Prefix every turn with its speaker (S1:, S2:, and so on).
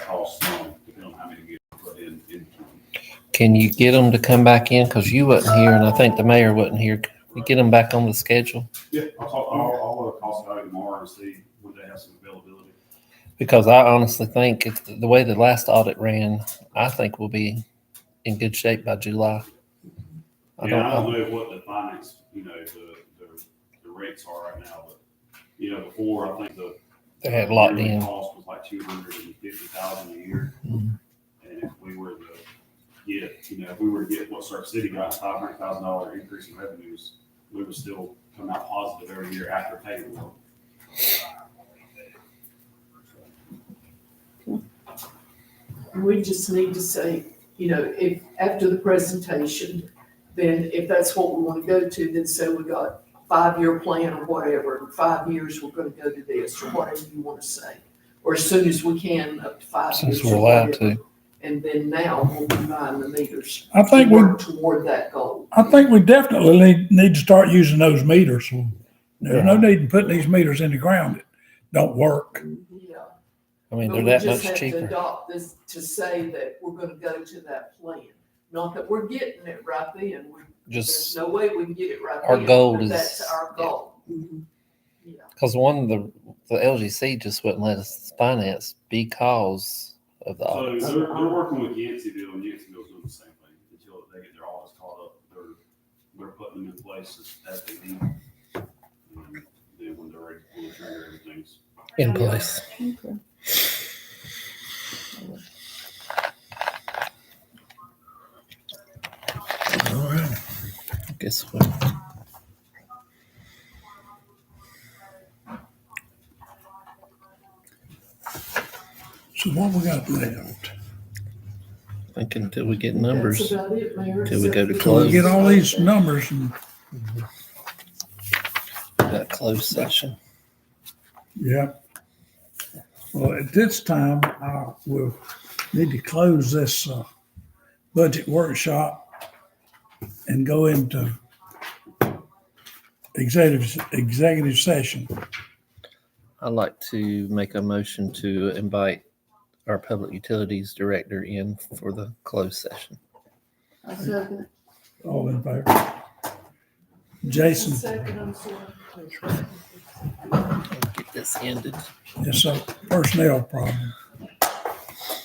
S1: cost some, depending on how many get put in, into them.
S2: Can you get them to come back in? Because you wasn't here and I think the mayor wasn't here. Can we get them back on the schedule?
S1: Yeah, I'll talk, I'll, I'll look cost value tomorrow and see when they have some availability.
S2: Because I honestly think if the the way the last audit ran, I think we'll be in good shape by July. I don't
S1: Yeah, I
S2: know.
S1: don't know what the finance, you know, the, the, the rates are right now, but, you know, before, I think the.
S2: They had locked
S1: yearly
S2: in.
S1: Cost was like two hundred and fifty thousand a year,
S2: Mhm.
S1: and if we were to get, you know, if we were to get what Surf City got, five hundred thousand dollar increase in revenues, we would still come out positive every year after payroll.
S3: We just need to say, you know, if, after the presentation, then if that's what we want to go to, then say we got five-year plan or whatever, in five years, we're gonna go to this, or whatever you want to say. Or as soon as we can, up to five years.
S2: Since we're
S3: or
S2: allowed
S3: whatever.
S2: to.
S3: And then now we'll be buying the meters.
S4: I think
S3: to
S4: we,
S3: work Toward that goal.
S4: I think we definitely need, need to start using those meters. There's no need in putting these meters in the ground that don't work.
S3: Yeah.
S2: I mean,
S3: But
S2: they're
S3: we
S2: that much
S3: just have to
S2: cheaper.
S3: Adopt this to say that we're gonna go to that plan, not that we're getting it right then, we, there's
S2: Just
S3: no way we can get it right then.
S2: Our goal
S3: but
S2: is-
S3: That's our goal. Yeah,
S2: because one of the, the LGC just wouldn't let us finance because of the
S1: So
S2: audits.
S1: they're, they're working with Yanceyville, and Yanceyville's doing the same thing, until they get their audits caught up, they're, they're putting them in place as, as they need. And Then when they're ready to pull the trigger, everything's
S2: in place.
S4: All right.
S2: I guess we'll
S4: So what we got left?
S2: think until we get
S3: That's
S2: numbers.
S3: about it, Mayor.
S2: Till we go to
S3: except for-
S4: So we get all these numbers and,
S2: That closed session.
S4: yeah. Well, at this time, I will need to close this, uh, budget workshop and go into executive, executive session.
S2: I'd like to make a motion to invite our public utilities director in for the closed session.
S5: I second.
S4: All in favor? Jason,
S3: Second, I'm sorry.
S2: Get this ended.
S4: it's a personnel problem.